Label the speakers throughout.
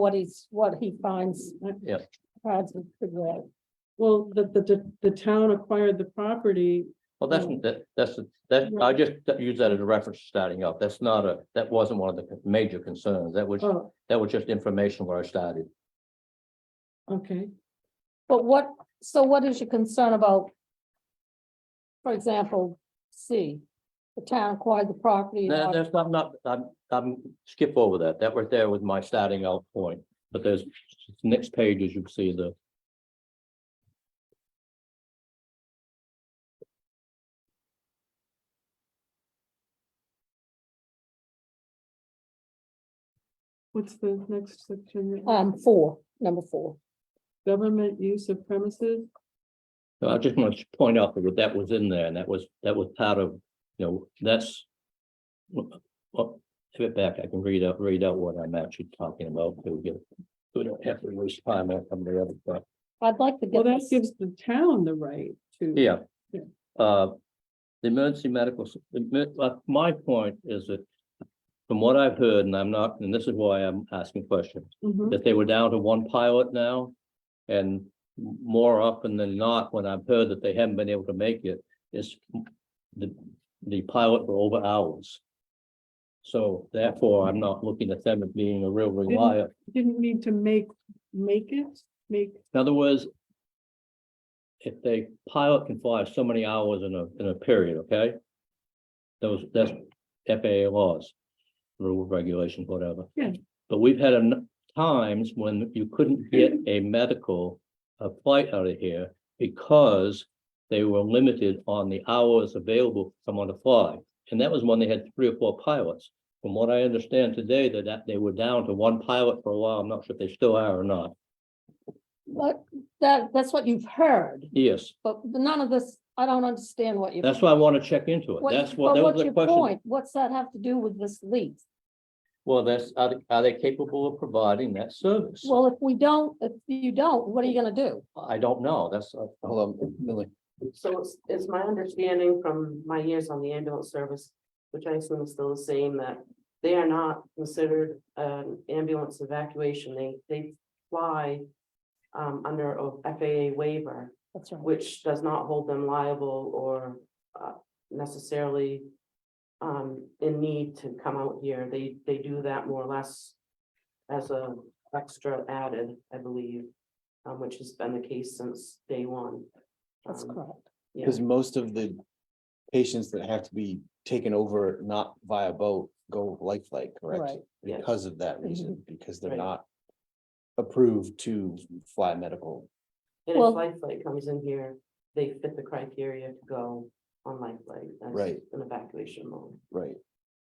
Speaker 1: what he's, what he finds.
Speaker 2: Yeah.
Speaker 1: Finds to figure out.
Speaker 3: Well, the, the- the, the town acquired the property.
Speaker 2: Well, that's, that, that's, that, I just use that as a reference starting up. That's not a, that wasn't one of the major concerns. That was,
Speaker 3: Oh,
Speaker 2: that was just information where I started.
Speaker 3: okay.
Speaker 1: But what, so what is your concern about? For example, C, the town acquired the property. and
Speaker 2: No,
Speaker 1: all-
Speaker 2: that's not, not, I'm, I'm skip over that. That right there was my starting out point. But there's, next page, as you can see, the.
Speaker 3: What's the next section?
Speaker 1: Um, four, number four.
Speaker 3: Government use of premises?
Speaker 2: So I just want to point out that that was in there and that was, that was part of, you know, that's. Well, give it back. I can read out, read out what I'm actually talking about. So We get- we don't have to waste time on some of the other stuff.
Speaker 1: I'd like to
Speaker 3: Well,
Speaker 1: get
Speaker 3: that
Speaker 1: this.
Speaker 3: gives the town the right to.
Speaker 2: Yeah.
Speaker 3: Yeah.
Speaker 2: Uh, the emergency medical, s- the emer- uh, my point is that from what I've heard, and I'm not, and this is why I'm asking questions.
Speaker 3: Mhm.
Speaker 2: that they were down to one pilot now. And m- more often than not, when I've heard that they haven't been able to make it, it's the, the pilot for over hours. So therefore, I'm not looking at them as being a real reliable.
Speaker 3: Didn't need to make, make it, make,
Speaker 2: In other words, if they pilot can fly so many hours in a, in a period, okay? Those, that's FAA laws, rule regulations, whatever.
Speaker 3: Yeah.
Speaker 2: But we've had en- times when you couldn't get a medical, a flight out of here because they were limited on the hours available for someone to fly. And that was when they had three or four pilots. From what I understand today, that- that they were down to one pilot for a while. I'm not sure if they still are or not.
Speaker 1: But that, that's what you've heard,
Speaker 2: Yes.
Speaker 1: but none of this, I don't understand what you.
Speaker 2: That's why I want to check into it. That's what,
Speaker 1: but
Speaker 2: that was
Speaker 1: what's
Speaker 2: the
Speaker 1: your
Speaker 2: question.
Speaker 1: point? What's that have to do with this lease?
Speaker 2: Well, that's, are, they- are they capable of providing that service?
Speaker 1: Well, if we don't, if you don't, what are you gonna do?
Speaker 2: I don't know. That's, uh, hold on, Millie.
Speaker 4: So it's, it's my understanding from my years on the ambulance service, which I assume is still the same, that they are not considered an ambulance evacuation. They, they fly um, under a FAA waiver,
Speaker 1: That's right.
Speaker 4: which does not hold them liable or uh, necessarily um, in need to come out here. They, they do that more or less as a extra added, I believe, um, which has been the case since day one.
Speaker 1: That's
Speaker 4: Um,
Speaker 1: correct.
Speaker 4: yeah.
Speaker 5: Because most of the patients that have to be taken over not via boat go life flight, correct?
Speaker 1: Right.
Speaker 4: Yeah.
Speaker 5: Because of that reason, because they're
Speaker 4: Right.
Speaker 5: not approved to fly medical.
Speaker 4: And
Speaker 1: Well-
Speaker 4: if Lifelight comes in here, they fit the criteria to go on Lifelight. as
Speaker 5: Right.
Speaker 4: An evacuation mode.
Speaker 5: Right.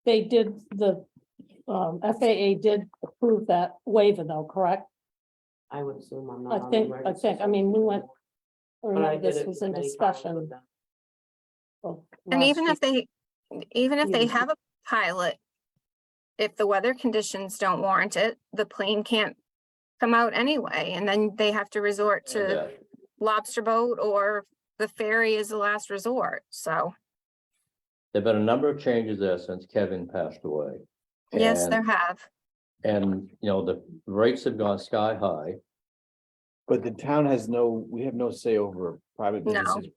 Speaker 1: They did, the um FAA did approve that waiver though, correct?
Speaker 4: I would assume I'm
Speaker 1: I
Speaker 4: not. on the
Speaker 1: think- I
Speaker 4: emergency
Speaker 1: think, I mean, we went-
Speaker 4: service,
Speaker 1: I
Speaker 4: but I
Speaker 1: remember
Speaker 4: did
Speaker 1: This
Speaker 4: it
Speaker 1: was in
Speaker 4: many times with
Speaker 1: discussion.
Speaker 4: them.
Speaker 1: of
Speaker 6: And
Speaker 1: last
Speaker 6: even
Speaker 1: year.
Speaker 6: if they, even if they
Speaker 1: Yeah.
Speaker 6: have a pilot, if the weather conditions don't warrant it, the plane can't come out anyway, and then they have to resort to
Speaker 2: Yeah.
Speaker 6: lobster boat or the ferry is the last resort, so,
Speaker 2: There've been a number of changes there since Kevin passed away.
Speaker 6: yes, there
Speaker 2: And-
Speaker 6: have.
Speaker 2: And, you know, the rates have gone sky high.
Speaker 5: But the town has no, we have no say over private
Speaker 6: No.
Speaker 5: businesses,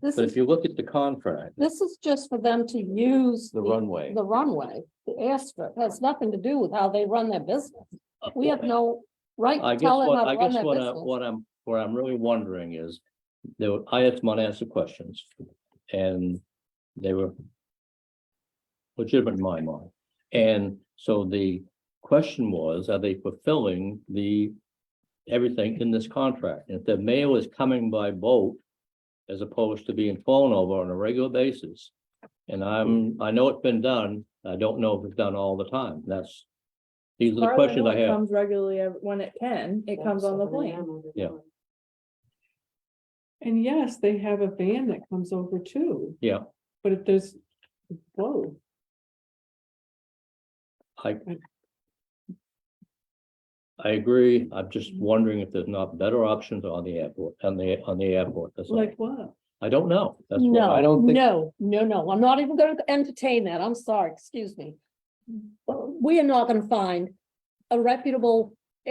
Speaker 1: This
Speaker 2: But if
Speaker 1: is,
Speaker 2: you look at the contract,
Speaker 1: this is just for them to use.
Speaker 5: the runway.
Speaker 1: The runway, the airstrip, has nothing to do with how they run their business. We have no right
Speaker 2: I
Speaker 1: to
Speaker 2: guess
Speaker 1: tell them
Speaker 2: what,
Speaker 1: how
Speaker 2: I
Speaker 1: to run
Speaker 2: guess
Speaker 1: their
Speaker 2: what I,
Speaker 1: business.
Speaker 2: what I'm, what I'm really wondering is, there, were- I had someone ask the questions, and they were legitimate in my mind, and so the question was, are they fulfilling the everything in this contract? If the mail is coming by boat, as opposed to being flown over on a regular basis, and I'm, I know it's been done, I don't know if it's done all the time, that's, these are the
Speaker 7: Carlin
Speaker 2: questions I
Speaker 7: only
Speaker 2: have.
Speaker 7: Comes regularly ev- when it can, it comes on the
Speaker 4: Seven
Speaker 7: plane.
Speaker 4: AM every
Speaker 2: Yeah.
Speaker 4: morning.
Speaker 3: and yes, they have a van that comes over too.
Speaker 2: Yeah.
Speaker 3: But if there's, whoa,
Speaker 2: I. I agree. I'm just wondering if there's not better options on the airport, on the, on the airport. That's all.
Speaker 3: like what?
Speaker 2: I don't know. That's what I-
Speaker 5: I
Speaker 1: No,
Speaker 5: don't think-
Speaker 1: no, no, no, I'm not even gonna entertain that, I'm sorry, excuse me. But We are not gonna find a reputable